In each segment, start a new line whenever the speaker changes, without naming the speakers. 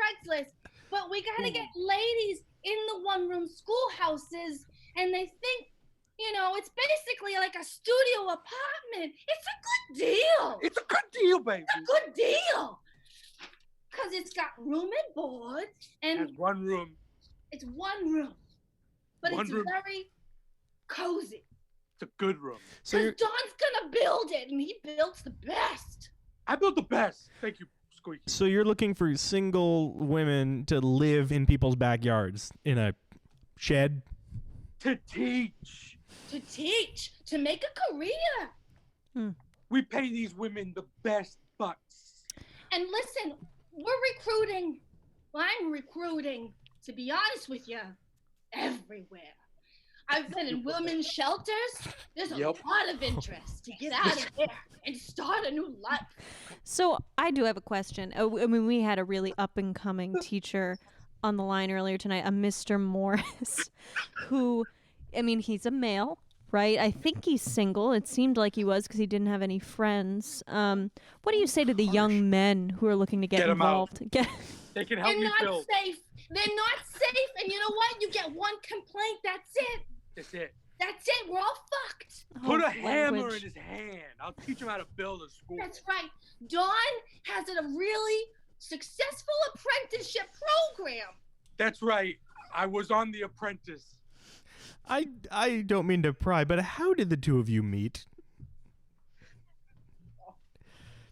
Craigslist, but we gotta get ladies in the one room schoolhouses, and they think, you know, it's basically like a studio apartment. It's a good deal.
It's a good deal, baby.
It's a good deal. Cause it's got room and board, and
There's one room.
it's one room, but
One
it's
room.
very cozy.
It's a good room.
So
Cause
you're
Don's gonna build it, and he builds the best.
I built the best. Thank you, Squeaky.
so you're looking for single women to live in people's backyards in a shed.
To teach.
To teach, to make a career.
We pay these women the best bucks.
And listen, we're recruiting. Well, I'm recruiting, to be honest with you, everywhere. I've been in women's shelters. There's a
Yep.
lot of interest to get out of there and start a new life.
So I do have a question. Uh, w- I mean, we had a really up and coming teacher on the line earlier tonight, a Mr. Morris, who, I mean, he's a male, right? I think he's single. It seemed like he was because he didn't have any friends. Um, what do you say to the young men who are looking to get,
Get 'em out.
involved? Get,
They can help
They're
you
not
build.
safe. They're not safe. And you know what? You get one complaint. That's it.
That's it.
That's it. We're all fucked.
Put
Oh,
a hammer in
language.
his hand. I'll teach him how to build a school.
That's right. Dawn has a really successful apprenticeship program.
That's right. I was on The Apprentice.
I I don't mean to pry, but how did the two of you meet?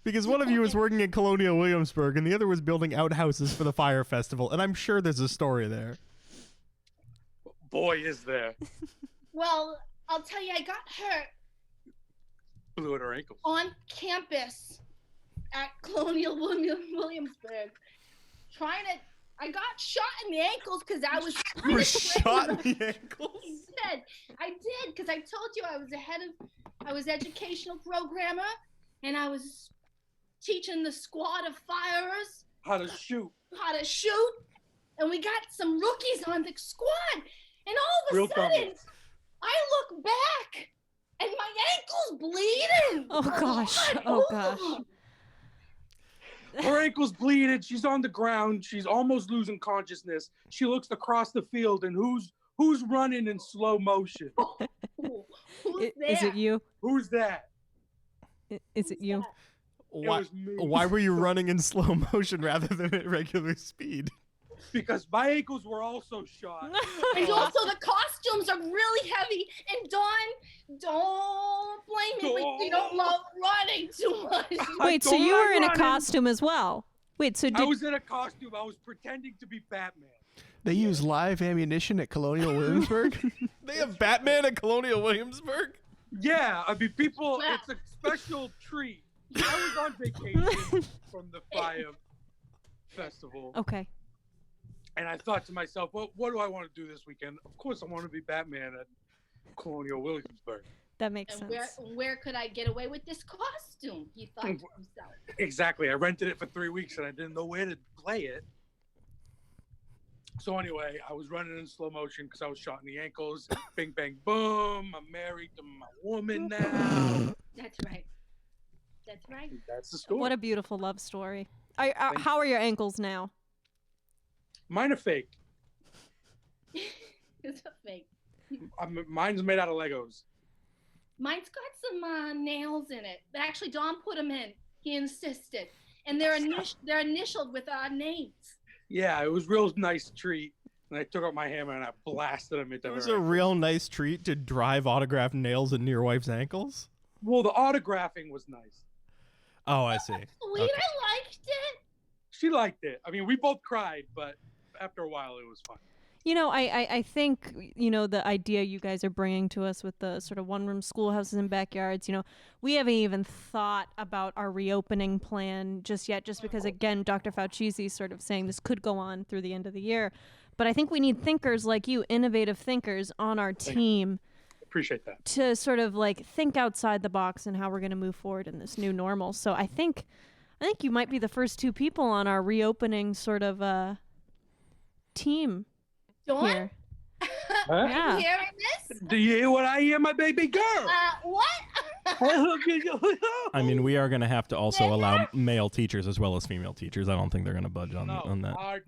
Because one of you was working at Colonial Williamsburg and the other was building outhouses for the fire festival, and I'm sure there's a story there.
Boy, is there.
Well, I'll tell you, I got hurt
Blew at her ankles.
on campus at Colonial William, Williamsburg trying to. I got shot in the ankles because I was.
You were shot in the ankles.
I did. I did because I told you I was ahead of. I was educational programmer, and I was teaching the squad of firers
How to shoot.
how to shoot, and we got some rookies on the squad, and all of a
Real
sudden,
dummies.
I look back, and my ankle's bleeding.
Oh, gosh.
God,
Oh,
both of
gosh.
them.
Her ankle's bleeding. She's on the ground. She's almost losing consciousness. She looks across the field, and who's who's running in slow motion?
Ooh, Who's
I-
there?
Is it you?
Who's that?
I- Is it you?
Why,
It was me.
why were you running in slow motion rather than at regular speed?
Because my ankles were also shot.
And also the costumes are really heavy. And Dawn, don't blame me. We, we don't love running too much.
I
Wait, so you
don't
were in a
run
costume as well? Wait, so
I
did
was in a costume. I was pretending to be Batman.
They use live ammunition at Colonial Williamsburg.
They have Batman at Colonial Williamsburg?
Yeah, I mean, people,
Wow.
it's a special treat. I was on vacation from the fire festival,
okay.
and I thought to myself, well, what do I want to do this weekend? Of course, I want to be Batman at Colonial Williamsburg.
That makes
And
sense.
where where could I get away with this costume? He thought to himself.
Exactly. I rented it for three weeks and I didn't know where to play it. So anyway, I was running in slow motion because I was shot in the ankles. Bing, bang, boom. I'm married to my woman now.
That's right. That's right.
That's the story.
What a beautiful love story. I, uh,
Thank
how are your ankles now?
Mine are fake.
It's a fake.
I'm, mine's made out of Legos.
Mine's got some uh, nails in it, but actually Don put them in. He insisted, and they're init- they're initialed with our names.
Yeah, it was real nice treat. And I took out my hammer and I blasted him into
It was
her.
a real nice treat to drive autographed nails into your wife's ankles.
well, the autographing was nice.
Oh, I see.
Sweet,
Okay.
I liked it.
She liked it. I mean, we both cried, but after a while, it was fun.
You know, I, I, I think, you know, the idea you guys are bringing to us with the sort of one room schoolhouses and backyards, you know, we haven't even thought about our reopening plan just yet, just because, again, Dr. Fauci is sort of saying this could go on through the end of the year. But I think we need thinkers like you, innovative thinkers on our team
Appreciate that.
to sort of like think outside the box and how we're going to move forward in this new normal. So I think I think you might be the first two people on our reopening sort of uh team
Dawn,
here.
Huh?
you
Yeah.
hearing this?
Do you hear what I hear, my baby girl?
Uh, what?
I mean, we are going to have to also allow male teachers as well as female teachers. I don't think they're going to budge on,
No,
on that.
hard